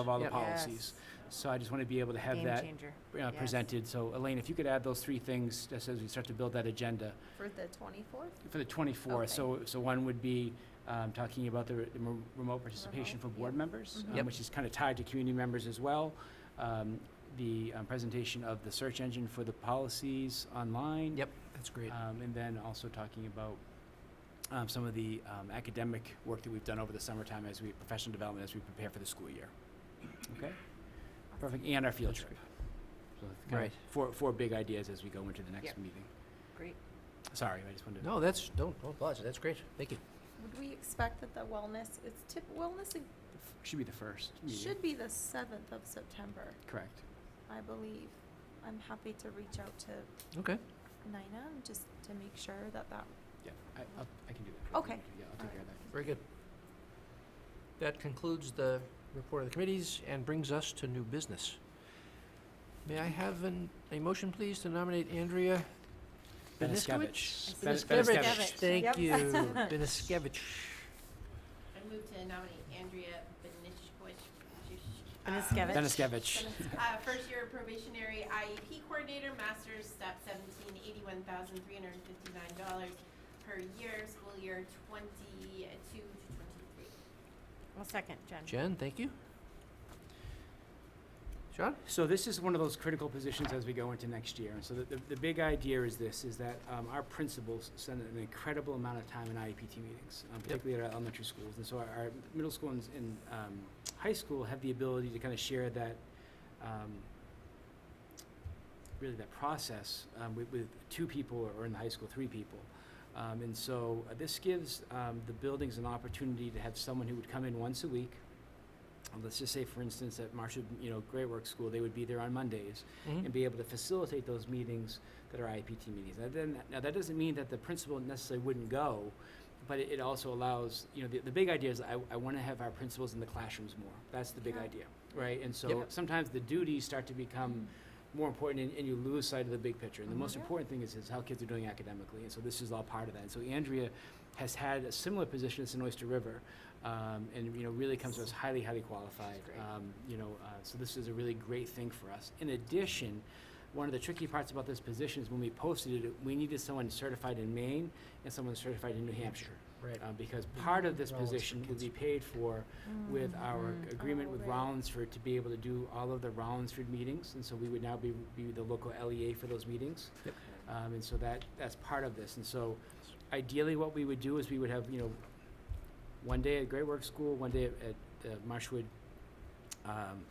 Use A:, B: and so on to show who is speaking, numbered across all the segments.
A: of all the
B: Yep.
A: policies. So I just want to be able to have
C: Game
A: that
C: changer.
A: uh,
C: Yes.
A: presented. So Elaine, if you could add those three things, just as we start to build that agenda
D: For the twenty-fourth?
A: for the 24th.
D: Okay.
A: So, so one would be um, talking about the re- the remo- remote participation for
D: Remote,
A: board
D: yeah.
A: members,
D: Mhm.
A: um,
B: Yep.
A: which is kind of tied to community members as well. Um, The um, presentation of the search engine for the policies online.
B: Yep, uh, that's great.
A: Um, and then also talking about um, some of the um, academic work that we've done over the summertime as we, professional development as we prepare for the school year. Okay? Perfect. And our field
B: That's
A: trip. So it's kind of
B: Right.
A: Four, four big ideas as we go into the next
C: Yep.
A: meeting.
C: Great.
A: Sorry, I just wanted to.
B: No, that's, don't, don't apologize, that's great, thank you.
D: Would we expect that the wellness, it's tip, wellness i-
A: Should be the first. meeting.
D: should be the seventh of September,
A: Correct.
D: I believe. I'm happy to reach out to
B: Okay.
D: Nina just to make sure that that,
A: Yeah, I, I'll- I can do that.
D: Okay.
A: Yeah, I'll take care of that.
B: Very good. That concludes the report of the committees and brings us to new business. May I have an, a motion, please, to nominate Andrea Beniskevich?
A: Beniskevich. Benis- Beniskevich.
B: Thank
D: Yep.
B: you, Beniskevich.
E: I move to nominate Andrea Benishkowitz,
C: Beniskevich.
A: Beniskevich.
E: uh, first year probationary IEP E coordinator, master's, step seventeen, eighty-one thousand, three hundred and fifty-nine dollars per year, school year twenty-two to twenty-three.
C: Well, second, Jen.
B: Jen, thank you. Sean?
A: So this is one of those critical positions as we go into next year. And so the, the, the big idea is this, is that um, our principals spend an incredible amount of time in IEPT meetings, um, particularly at our elementary schools. And so our, our middle school and, and um, high school have the ability to kind of share that, um, really that process um, with, with two people or in the high school, three people. Um, and so uh, this gives um, the buildings an opportunity to have someone who would come in once a week. Uh, Let's just say, for instance, at Marshall, you know, Great Works School, they would be there on Mondays
B: Hmm.
A: and be able to facilitate those meetings that are IPT meetings. Now, then, now that doesn't mean that the principal necessarily wouldn't go, but it, it also allows, you know, the, the big idea is I, I want to have our principals in the classrooms more. That's the big
D: Yeah.
A: idea, right? And so
B: Yep.
A: sometimes the duties start to become more important and, and you lose sight of the big picture.
B: Mm-hmm.
A: And the most
D: Mhm. Yeah.
A: important thing is, is how kids are doing academically. And so this is all part of that. And so Andrea has had a similar position as in Oyster River. Um, and you know really comes to us highly highly qualified
E: great.
A: um, you know uh, so this is a really great thing for us in addition one of the tricky parts about this position is when we posted it we needed someone certified in maine and someone certified in new hampshire
B: Mm-hmm. Right.
A: uh, because part of this
B: Rollins for
A: position would
B: kids. Mm-hmm.
A: be paid for with our
C: Mm.
A: agreement
D: Oh,
A: with
D: right.
A: Rollinsford to be able to do all of the Rollinsford meetings, and so we would now be, be the local LEA for those meetings.
B: Yep.
A: Um, and so that, that's part of this, and so ideally what we would do is we would have, you know, one day at Great Works School, one day at, at uh, Marshwood, um,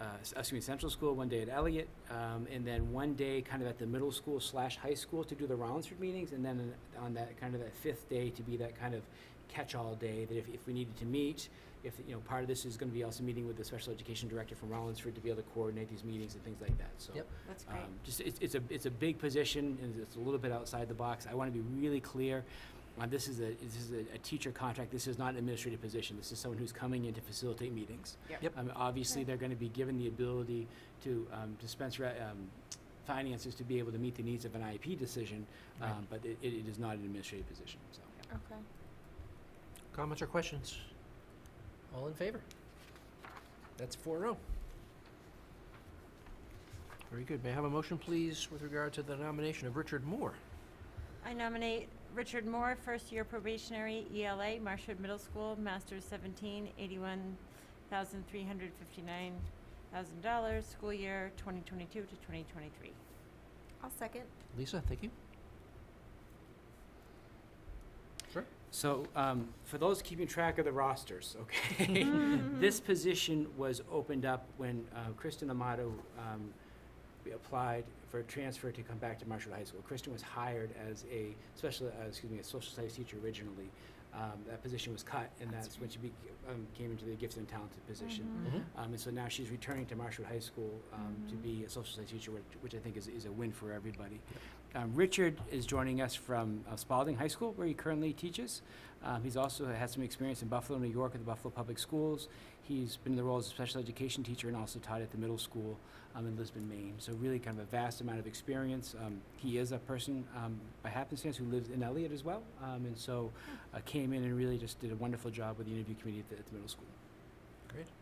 A: uh, s- excuse me, Central School, one day at Elliott, um, and then one day kind of at the middle school slash high school to do the Rollinsford meetings, and then on that, kind of that fifth day to be that kind of catch-all day, that if, if we needed to meet, if, you know, part of this is gonna be also meeting with the special education director from Rollinsford to be able to coordinate these meetings and things like that, so.
B: Yep.
C: That's
A: Um,
C: great.
A: just, it's, it's a, it's a big position, and it's a little bit outside the box. I wanna be really clear, uh, this is a, this is a, a teacher contract, this is not an administrative position, this is someone who's coming in to facilitate meetings.
B: Yep.
A: Um, obviously,
D: Right.
A: they're gonna be given the ability to, um, dispense, re- um, finances to be able to meet the needs of an IEP decision,
B: Right.
A: um, but it, it it is not an administrative position, so.
D: okay.
B: Comments or questions? All in favor? That's four oh. Very good. May I have a motion, please, with regard to the nomination of Richard Moore?
C: I nominate Richard Moore, first-year probationary ELA, Marshwood Middle School, Masters 17, $81,359,000, school year 2022 to 2023.
D: I'll second.
B: Lisa, thank you.
A: So, um, for those keeping track of the rosters, okay, this position was opened up when uh, Kristen Amato um, we applied for a transfer to come back to Marshall High School. Kristen was hired as a special, uh, excuse me, a social studies teacher originally. Um, that position was cut, and that's, when she be, um, came into the gifted and talented position.
D: Mm-hmm.
A: Um, and so now she's returning to Marshwood High School um, to
D: Mhm.
A: be a social studies teacher, which, which I think is, is a win for everybody. Um, Richard is joining us from uh, Spalding High School, where he currently teaches. Um, he's also had some experience in Buffalo, New York, at the Buffalo Public Schools. He's been in the role as a special education teacher and also taught at the middle school um, in Lisbon, Maine. So really kind of a vast amount of experience. Um, he is a person um, by happenstance who lives in Elliott as well, um, and so uh, came in and really just did a wonderful job with the interview committee at the, at the middle school.
B: Great.